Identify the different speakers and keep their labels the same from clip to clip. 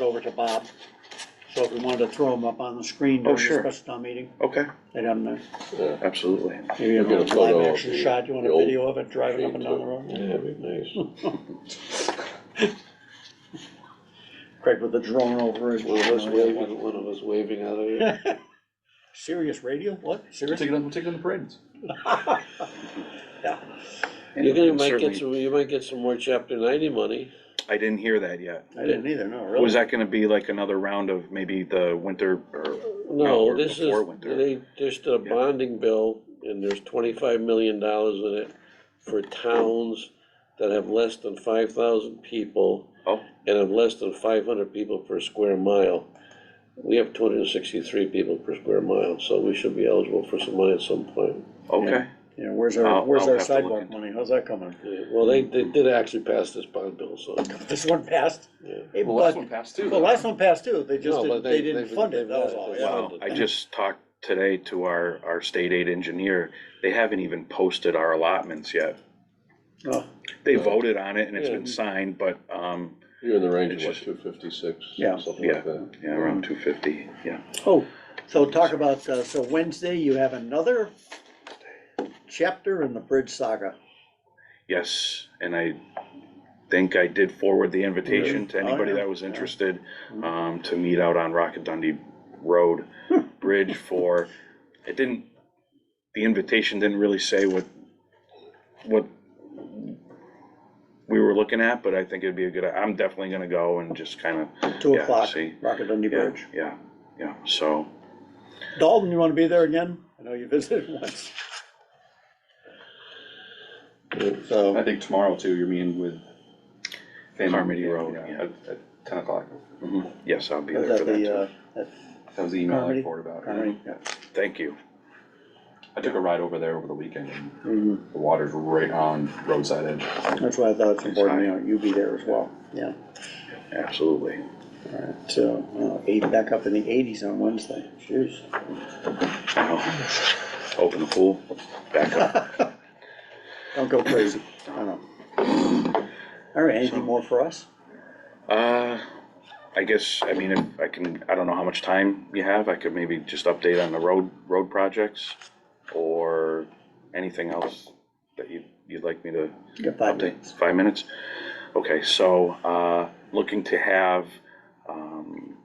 Speaker 1: numbers over to Bob, so if we wanted to throw them up on the screen during
Speaker 2: Oh, sure.
Speaker 1: the special town meeting,
Speaker 2: Okay,
Speaker 1: they'd have them,
Speaker 3: Yeah,
Speaker 2: absolutely.
Speaker 1: maybe a
Speaker 3: You'll get a photo
Speaker 1: live
Speaker 3: of
Speaker 1: action
Speaker 3: the-
Speaker 1: shot, you want
Speaker 3: the
Speaker 1: a
Speaker 3: old
Speaker 1: video of it driving up and down the road?
Speaker 3: Yeah, it'd be nice.
Speaker 1: Craig with the drone over
Speaker 3: One of us
Speaker 1: it.
Speaker 3: waving, one of us waving out of it.
Speaker 1: Serious radio, what,
Speaker 4: We'll
Speaker 1: serious?
Speaker 4: take it on, we'll take it on the parades.
Speaker 3: You're gonna,
Speaker 2: And
Speaker 3: might get
Speaker 2: certainly-
Speaker 3: some, you might get some more chapter ninety money.
Speaker 2: I didn't hear that yet.
Speaker 1: I didn't either, no, really.
Speaker 2: Was that gonna be like another round of maybe the winter or, No,
Speaker 3: No,
Speaker 2: or
Speaker 3: this is,
Speaker 2: before winter.
Speaker 3: they just a
Speaker 2: Yeah.
Speaker 3: bonding bill, and there's twenty-five million dollars in it for towns that have less than five thousand people
Speaker 2: oh,
Speaker 3: and have less than five hundred people per square mile. We have two hundred and sixty-three people per square mile, so we should be eligible for some money at some point.
Speaker 2: okay.
Speaker 1: You know, where's
Speaker 2: I'll-
Speaker 1: our, where's
Speaker 2: I'll
Speaker 1: our
Speaker 2: have to look
Speaker 1: sidewalk
Speaker 2: into
Speaker 1: money, how's that coming?
Speaker 3: Yeah, Well, they, they did actually pass this bond bill, so,
Speaker 1: This one passed?
Speaker 3: yeah.
Speaker 1: Hey,
Speaker 4: Well, last
Speaker 1: but-
Speaker 4: one passed too.
Speaker 1: Well, last one passed too, they just
Speaker 3: No,
Speaker 1: didn't,
Speaker 3: but
Speaker 1: they
Speaker 3: they-
Speaker 1: didn't
Speaker 3: they've-
Speaker 1: fund it,
Speaker 3: they've
Speaker 1: that was
Speaker 3: got it.
Speaker 1: all,
Speaker 3: They
Speaker 1: yeah.
Speaker 3: found
Speaker 2: Wow, I just talked today to our, our state aid engineer, they haven't even posted our allotments yet.
Speaker 1: Oh,
Speaker 2: They voted on it and it's
Speaker 3: Yeah.
Speaker 2: been signed, but, um,
Speaker 3: You're in the range
Speaker 2: of, what,
Speaker 3: two fifty-six,
Speaker 1: Yeah.
Speaker 3: something
Speaker 2: like
Speaker 3: that.
Speaker 2: yeah, around two fifty, yeah.
Speaker 1: Oh, so talk about, uh, so Wednesday, you have another chapter in the bridge saga.
Speaker 2: Yes, and I think I did forward the invitation to
Speaker 1: Really? Oh,
Speaker 2: anybody
Speaker 1: yeah.
Speaker 2: that was
Speaker 1: Yeah. Mm-hmm.
Speaker 2: interested, um, to meet out on Rocket Dundee Road Bridge for, it didn't, the invitation didn't really say what, what we were looking at, but I think it'd be a good, I'm definitely gonna go and just kinda,
Speaker 1: Two
Speaker 2: Yeah,
Speaker 1: o'clock,
Speaker 2: see.
Speaker 1: Rocket Dundee
Speaker 2: yeah,
Speaker 1: Bridge.
Speaker 2: yeah, yeah, so.
Speaker 1: Dalton, you wanna be there again? I know you visited once.
Speaker 4: I
Speaker 3: So,
Speaker 4: think tomorrow too, you're meeting with. family.
Speaker 2: Harmony Road, yeah.
Speaker 4: At, at ten o'clock.
Speaker 2: mhm, Yes, I'll be
Speaker 1: Was
Speaker 2: there for
Speaker 1: that
Speaker 2: that
Speaker 1: the,
Speaker 2: too.
Speaker 1: uh,
Speaker 4: That was the email
Speaker 1: Harmony.
Speaker 4: I forwarded about.
Speaker 1: Harmony,
Speaker 4: Yeah.
Speaker 2: Thank you.
Speaker 4: I took a ride over there over the weekend and
Speaker 1: mhm,
Speaker 4: the water's right on roadside edge.
Speaker 1: that's why I thought it's important, you know, you be there as well, yeah.
Speaker 2: Absolutely.
Speaker 1: Alright, so, uh, eight, back up in the eighties on Wednesday, jeez.
Speaker 2: Now, Open the pool, back up.
Speaker 1: Don't go crazy, I know. Alright, anything more for us?
Speaker 2: Uh, I guess, I mean, if I can, I don't know how much time you have, I could maybe just update on the road, road projects, or anything else that you, you'd like me to
Speaker 1: You got five
Speaker 2: update?
Speaker 1: minutes.
Speaker 2: Five minutes? Okay, so, uh, looking to have, um,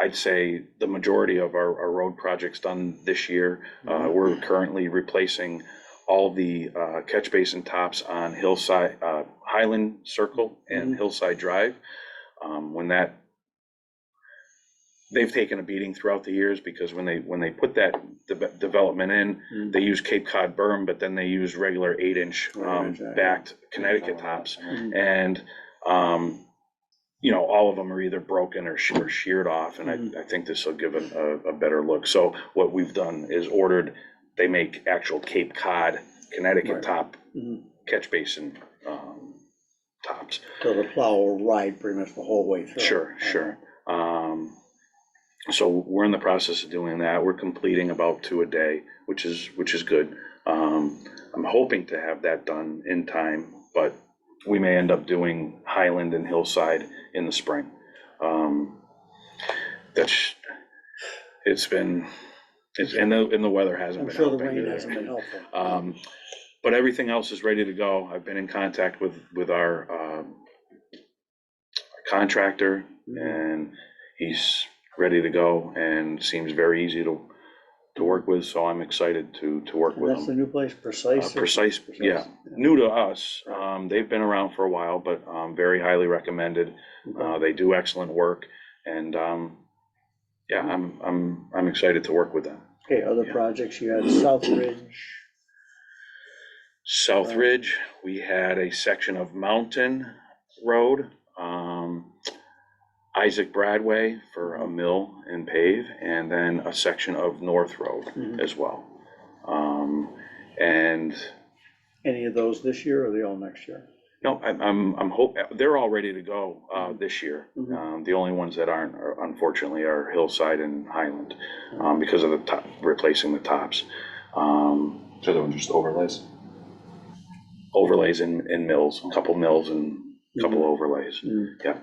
Speaker 2: I'd say the majority of our, our road projects done this year. Uh, we're currently replacing all the, uh, catch basin tops on Hillside, uh, Highland Circle and
Speaker 1: Mhm.
Speaker 2: Hillside Drive. Um, when that, they've taken a beating throughout the years because when they, when they put that de- development in,
Speaker 1: Mhm.
Speaker 2: they use Cape Cod berm, but then they use regular eight inch, um,
Speaker 1: Right, right.
Speaker 2: backed Connecticut tops.
Speaker 1: Mhm.
Speaker 2: And, um, you know, all of them are either broken or she- or sheared off, and
Speaker 1: Mhm.
Speaker 2: I, I think this will give it a, a better look. So what we've done is ordered, they make actual Cape Cod,
Speaker 1: Right.
Speaker 2: Connecticut top
Speaker 1: Mhm.
Speaker 2: catch basin, um, tops.
Speaker 1: So the plow will ride pretty much the whole way through.
Speaker 2: Sure, sure. Um, so we're in the process of doing that. We're completing about two a day, which is, which is good. Um, I'm hoping to have that done in time, but we may end up doing Highland and Hillside in the spring. Um, that's, it's been, it's, and the, and the weather hasn't
Speaker 1: I'm
Speaker 2: been
Speaker 1: sure the
Speaker 2: helping.
Speaker 1: rain
Speaker 2: either.
Speaker 1: hasn't been helpful.
Speaker 2: Um, but everything else is ready to go. I've been in contact with, with our, um, contractor
Speaker 1: Mhm.
Speaker 2: and he's ready to go and seems very easy to, to work with, so I'm excited to, to work with
Speaker 1: That's the
Speaker 2: him.
Speaker 1: new place,
Speaker 2: Uh,
Speaker 1: Precise? or-
Speaker 2: Precise,
Speaker 1: Precise,
Speaker 2: yeah, new to us, um, they've been around for a while, but, um, very highly recommended.
Speaker 1: Okay.
Speaker 2: Uh, they do excellent work and, um, yeah, I'm, I'm, I'm excited to work with them.
Speaker 1: Okay, other
Speaker 2: yeah.
Speaker 1: projects, you had South Ridge,
Speaker 2: South
Speaker 1: Right.
Speaker 2: Ridge, we had a section of Mountain Road, um, Isaac Bradway for a mill and pave, and then a section of North Road
Speaker 1: Mhm.
Speaker 2: as well. Um, and,
Speaker 1: any of those this year or are they all next year?
Speaker 2: no, I'm, I'm, I'm hope, they're all ready to go, uh, this year.
Speaker 1: Mhm.
Speaker 2: Um, the only ones that aren't are unfortunately are Hillside and Highland, um, because of the top, replacing the tops. Um,
Speaker 4: So the ones just overlays.
Speaker 2: overlays in, in mills, a couple mills and a couple overlays.
Speaker 1: Mm.
Speaker 2: Yeah.